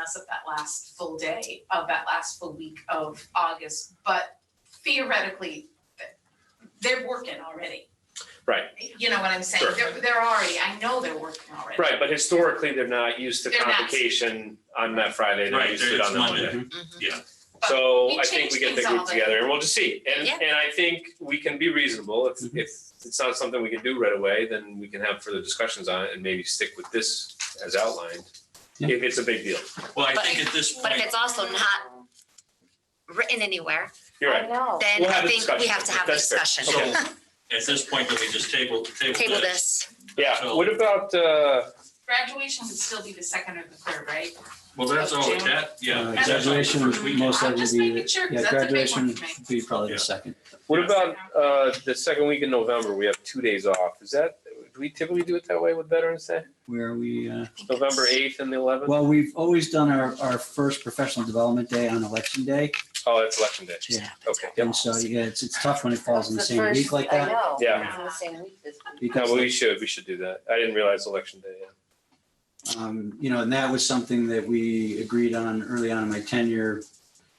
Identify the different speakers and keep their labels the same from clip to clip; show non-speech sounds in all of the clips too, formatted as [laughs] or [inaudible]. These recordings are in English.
Speaker 1: us at that last full day of that last full week of August, but theoretically, th- they're working already.
Speaker 2: Right.
Speaker 1: You know what I'm saying?
Speaker 2: Sure.
Speaker 1: They're, they're already, I know they're working already.
Speaker 2: Right, but historically, they're not used to
Speaker 1: They're not.
Speaker 2: convocation on that Friday, they're
Speaker 3: Right,
Speaker 2: used to it
Speaker 3: it's
Speaker 2: on the
Speaker 3: Monday.
Speaker 2: Monday.
Speaker 3: Yeah.
Speaker 1: Mm-hmm. But
Speaker 2: So
Speaker 1: we
Speaker 2: I think
Speaker 1: change
Speaker 2: we get the
Speaker 1: things all
Speaker 2: group
Speaker 1: the-
Speaker 2: together and we'll just see. And,
Speaker 4: Yeah.
Speaker 2: and I think we can be reasonable. If,
Speaker 3: Mhm.
Speaker 2: if it's not something we can do right away, then we can have further discussions on it and maybe stick with this as outlined.
Speaker 3: Yeah.
Speaker 2: If it's a big deal.
Speaker 3: Well, I
Speaker 4: But-
Speaker 3: think at this
Speaker 4: But
Speaker 3: point,
Speaker 4: if it's also not written anywhere,
Speaker 2: You're right.
Speaker 4: then
Speaker 2: We'll
Speaker 4: I
Speaker 2: have a
Speaker 4: think we
Speaker 2: discussion.
Speaker 4: have to have a
Speaker 2: That's fair.
Speaker 4: discussion.
Speaker 3: so at this point, then we just table, table
Speaker 4: [laughs] Table
Speaker 3: this.
Speaker 4: this.
Speaker 2: Yeah,
Speaker 3: So-
Speaker 2: what about, uh,
Speaker 1: Graduation would still be the second or the third, right?
Speaker 3: Well, that's all, that, yeah.
Speaker 5: Uh,
Speaker 3: that's all the
Speaker 5: graduation
Speaker 3: first weekend.
Speaker 5: most
Speaker 1: I'm
Speaker 5: likely
Speaker 1: just
Speaker 5: be-
Speaker 1: making sure, 'cause
Speaker 5: Yeah,
Speaker 1: that's a big one
Speaker 5: graduation
Speaker 1: for me.
Speaker 5: would be probably
Speaker 3: Yeah.
Speaker 5: the second.
Speaker 2: what
Speaker 3: Yeah.
Speaker 2: about, uh, the second week in November? We have two days off. Is that, do we typically do it that way with Veterans Day?
Speaker 5: Where we, uh,
Speaker 4: I think
Speaker 2: November
Speaker 4: it's-
Speaker 2: eighth and the eleventh?
Speaker 5: well, we've always done our, our first professional development day on election day.
Speaker 2: Oh, that's election day.
Speaker 5: Yeah.
Speaker 2: Okay.
Speaker 5: And so, yeah, it's, it's tough when it falls in the same week like
Speaker 6: I
Speaker 5: that.
Speaker 6: know.
Speaker 2: Yeah.
Speaker 6: It's in the same week this week.
Speaker 2: No,
Speaker 5: Because,
Speaker 2: but we should, we should do that. I didn't realize election day. yeah.
Speaker 5: um, you know, and that was something that we agreed on early on in my tenure.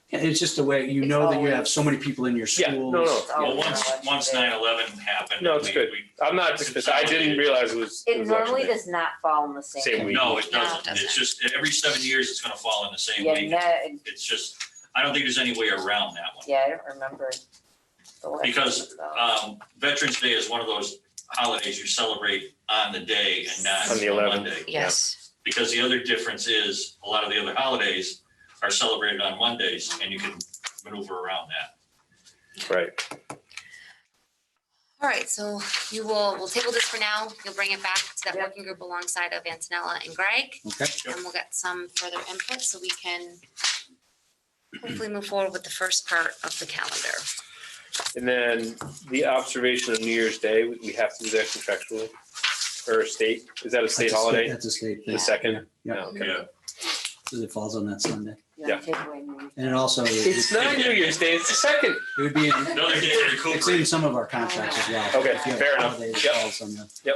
Speaker 5: Yeah, It's just a way, you
Speaker 6: It's
Speaker 5: know that you
Speaker 6: always-
Speaker 5: have so many people in your
Speaker 2: Yeah, no, no.
Speaker 5: schools.
Speaker 6: Oh,
Speaker 3: Well, once,
Speaker 6: election
Speaker 3: once
Speaker 6: day.
Speaker 3: nine eleven happened.
Speaker 2: No, it's
Speaker 3: we-
Speaker 2: good.
Speaker 3: we-
Speaker 2: I'm not dismissive. I didn't realize it was. it
Speaker 6: It
Speaker 2: was
Speaker 6: normally
Speaker 2: election day.
Speaker 6: does not fall in the same.
Speaker 2: Same week.
Speaker 3: No, it
Speaker 4: No, it
Speaker 3: doesn't.
Speaker 4: doesn't.
Speaker 3: It's just, every seven years, it's gonna fall in the same
Speaker 6: Yeah,
Speaker 3: week.
Speaker 6: no,
Speaker 3: It's just, I don't think there's any way around that one.
Speaker 6: yeah, I don't remember. the last
Speaker 3: Because,
Speaker 6: one, though.
Speaker 3: Um, Veterans Day is one of those holidays you celebrate on the day and not
Speaker 2: On
Speaker 3: on
Speaker 2: the
Speaker 3: the
Speaker 2: 11th.
Speaker 3: Monday.
Speaker 4: Yes,
Speaker 3: Because the other difference is, a lot of the other holidays are celebrated on Mondays, and you can maneuver around that.
Speaker 2: Right.
Speaker 4: all right, so you will, we'll table this for now, you'll bring it back to that
Speaker 6: Yep.
Speaker 4: working group alongside of Antonella and Greg.
Speaker 5: Okay.
Speaker 3: Yep.
Speaker 4: And we'll get some further input so we can hopefully move forward with the first part of the calendar.
Speaker 2: And then the observation of New Year's Day, we we have to do that contractually or state, is that a state
Speaker 5: That's a
Speaker 2: holiday?
Speaker 5: That's a state thing.
Speaker 2: The second?
Speaker 5: Yeah.
Speaker 2: No, okay.
Speaker 3: Yeah,
Speaker 5: Because it falls on that Sunday.
Speaker 6: You wanna take away me.
Speaker 5: And it also, it
Speaker 2: It's not New Year's Day, it's the second.
Speaker 5: would be, in-
Speaker 3: another day to
Speaker 5: it's in
Speaker 3: recuperate.
Speaker 5: some of our contracts as well.
Speaker 2: Okay,
Speaker 5: If you have
Speaker 2: fair enough.
Speaker 5: holiday that
Speaker 2: Yep.
Speaker 5: falls on the-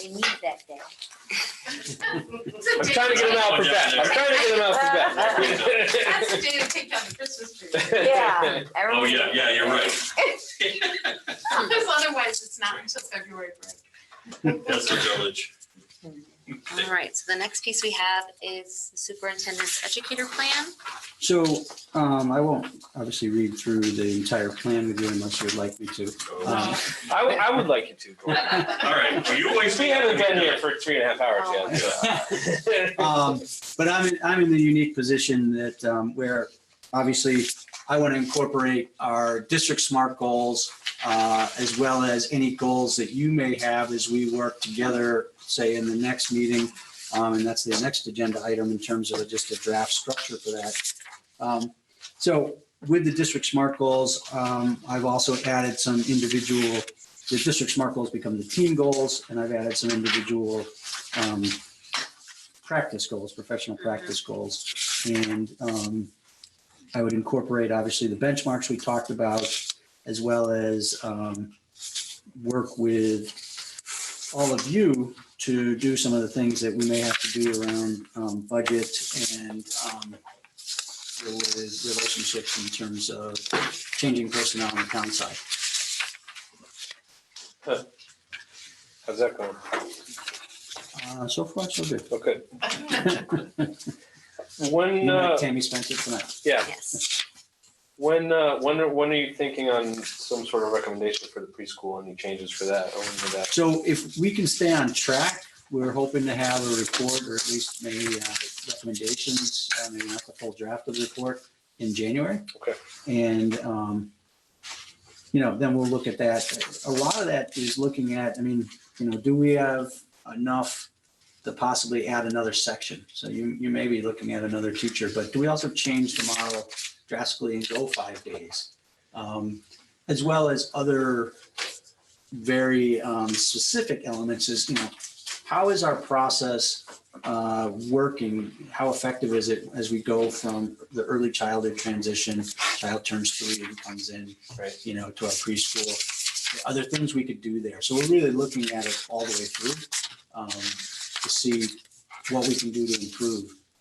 Speaker 6: We need that
Speaker 3: [laughs]
Speaker 6: day.
Speaker 2: I'm
Speaker 1: It's a
Speaker 2: trying to
Speaker 1: day,
Speaker 2: get them out for Beth. I'm trying to get them out
Speaker 1: that's a day to take down the Christmas tree.
Speaker 2: for Beth.
Speaker 6: Yeah.
Speaker 3: Oh,
Speaker 6: everyone-
Speaker 3: yeah, yeah, you're right.
Speaker 1: Because otherwise, it's not until February break.
Speaker 3: That's the village.
Speaker 4: All right, so the next piece we have is the superintendent's educator plan.
Speaker 5: So um, I won't obviously read through the entire plan with you unless you'd like me to. Um,
Speaker 2: I would, I would like you to. Gordon.
Speaker 3: All right, well, you always.
Speaker 2: We haven't been here for three and a half hours yet. so.
Speaker 5: um, [laughs] But I'm, in- I'm in the unique position that um, where obviously I want to incorporate our district SMART goals uh, as well as any goals that you may have as we work together, say in the next meeting. Um, And that's the next agenda item in terms of just a draft structure for that. Um, So with the district SMART goals, um, I've also added some individual, the district SMART goals become the team goals, and I've added some individual um, practice goals, professional practice goals. And um, I would incorporate, obviously, the benchmarks we talked about, as well as um, work with all of you to do some of the things that we may have to do around um, budget and um, with relationships in terms of changing personnel on the town side.
Speaker 2: How's that going?
Speaker 5: Uh, So far, so good.
Speaker 2: Okay. When,
Speaker 5: You
Speaker 2: uh,
Speaker 5: like Tammy Spencer tonight.
Speaker 2: yeah,
Speaker 4: Yes.
Speaker 2: When, uh, when, are- when are you thinking on some sort of recommendation for the preschool? Any changes for that? I wonder that.
Speaker 5: So if we can stay on track, we're hoping to have a report or at least maybe uh, recommendations, uh, maybe not the full draft of the report in January.
Speaker 2: Okay.
Speaker 5: And, um, you know, then we'll look at that. A lot of that is looking at, I mean, you know, do we have enough to possibly add another section? So you, you may be looking at another teacher, but do we also change the model drastically and go five days? Um, As well as other very um, specific elements is, you know, how is our process uh, working? How effective is it as we go from the early childhood transition, child turns three and comes in,
Speaker 2: Right.
Speaker 5: you know, to our preschool? Other things we could do there. So we're really looking at it all the way through um, to see what we can do to improve.